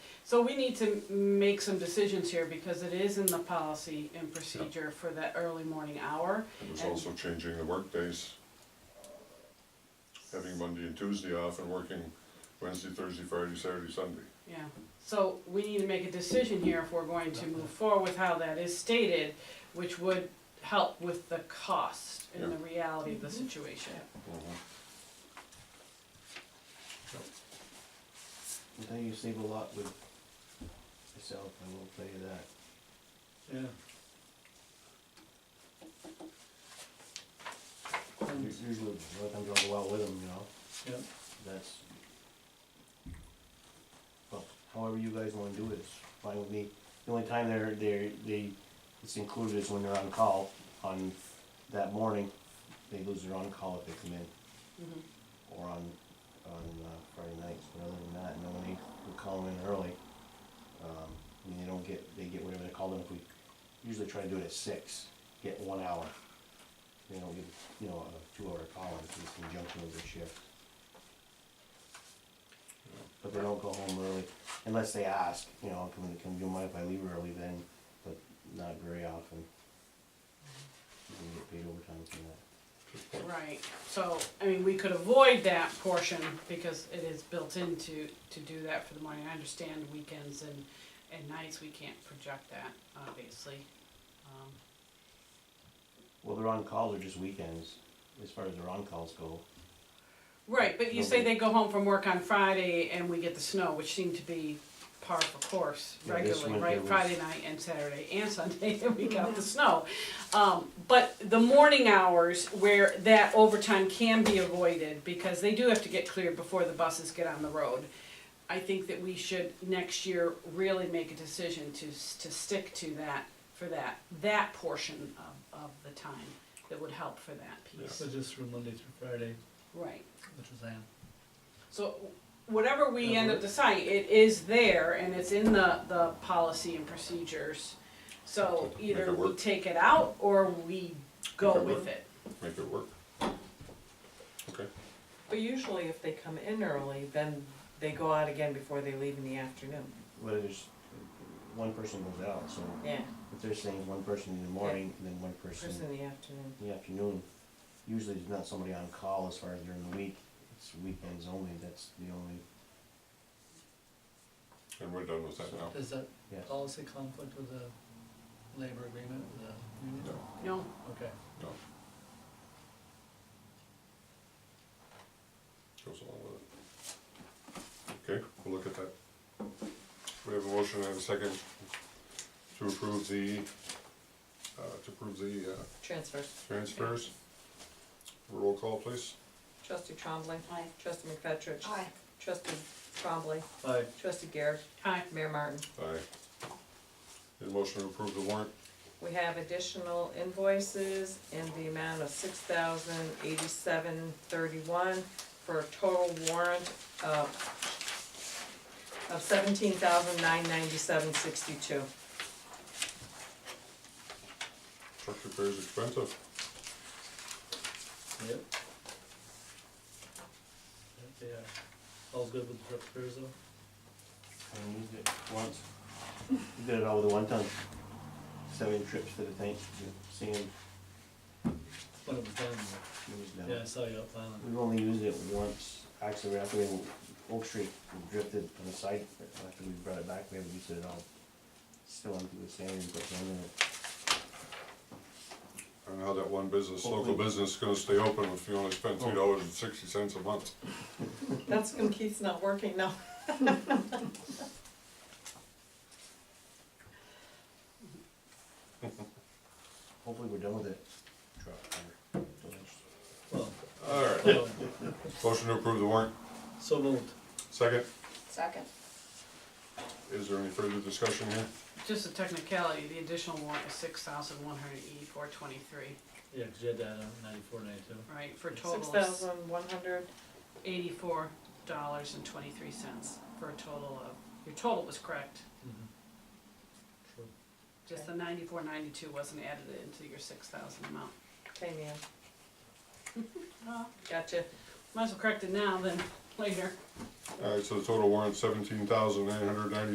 So we need to make some decisions here because it is in the policy and procedure for that early morning hour. It was And- also changing the workdays, having Monday and Tuesday off and working Wednesday, Thursday, Friday, Saturday, Sunday. Yeah, so we need to make a decision here if we're going to move forward with how that is stated, which would help with the cost and the reality of the situation. I think you save a lot with yourself, I will tell you that. Yeah. U- And, Usually, a lot of times I'll go out with them, you know, yeah, that's. Well, however you guys wanna do it, it's fine with me. The only time they're, they're, they, it's included is when they're on call on that morning. They lose their on-call if they come in, Mhm. or on, on uh, Friday nights, but other than that, no, they will call in early. Um, I mean, they don't get, they get whatever they call them, if we usually try to do it at six, get one hour. They don't get, you know, a two-hour call in, it's in conjunction with their shift. But they don't go home early, unless they ask, you know, can, can you mind if I leave early then, but not very often. You can get paid overtime for that. Right, so, I mean, we could avoid that portion because it is built into, to do that for the morning. I understand weekends and, and nights, we can't project that, obviously. Um, Well, their on-calls are just weekends, as far as their on-calls go. Right, but you say they go home from work on Friday and we get the snow, which seemed to be par for course Yeah, this regularly, winter right? was- Friday night and Saturday and Sunday, and we got the snow. Um, but the morning hours where that overtime can be avoided, because they do have to get cleared before the buses get on the road. I think that we should next year really make a decision to, s- to stick to that, for that, that portion of, of the time that would help for that piece. so just from Monday through Friday, Right. which is Ann. So whatever we Yeah, end up we're- deciding, it is there and it's in the, the policy and procedures. So Make it either we work. take it out or we Make go it with work. it. Make it work. Okay, But usually if they come in early, then they go out again before they leave in the afternoon, But there's, one person goes out, so yeah, if they're saying one person in the morning and then one person first in the afternoon. in the afternoon, usually there's not somebody on call as far as during the week. It's weekends only, that's the only, and we're done with that now. Does that yes. policy conflict with the labor agreement, with the union? No, No, Okay, no. Goes along with it. Okay, we'll look at that. We have a motion and a second to approve the, uh, to approve the, uh, Transfer. transfers. Roll call, please. Trustee Trombley. Aye. Trustee McFetrich. Aye. Trustee Trombley. bye. Trustee Garrett. I, Mayor Martin. Aye. Need a motion to approve the warrant? We have additional invoices in the amount of six thousand eighty-seven thirty-one for a total warrant of of seventeen thousand nine ninety-seven sixty-two. Truck repair's expensive. Yep. Yep, they are. All's good with the repairs though? I used it once. We Did it all with a one ton. Seven trips to the tank, the sand, it When it was done, was done. yeah, I saw you up island. We've only used it once, actually, after we, Oak Street drifted on the side, after we brought it back, we haven't used it at all. Still empty with sand and put sand in it. I don't know how that one business, local Hopefully. business is gonna stay open if you only spend three dollars and sixty cents a month. That's when Keith's not working now. Hopefully we're done with it. Truck, or- Well, Alright, well, motion to approve the warrant, so moved. second. Second. Is there any further discussion here? just a technicality, the additional warrant is six thousand one hundred eighty-four twenty-three, Yeah, 'cause you had that on ninety-four, ninety-two. right, for a Six total of thousand one hundred eighty-four dollars and twenty-three cents, for a total of, your total was correct. Mhm. True. Just the ninety-four, ninety-two wasn't added into your six thousand amount. Okay, man, Uh, gotcha. Might as well correct it now than later. Alright, so the total warrant seventeen thousand nine hundred ninety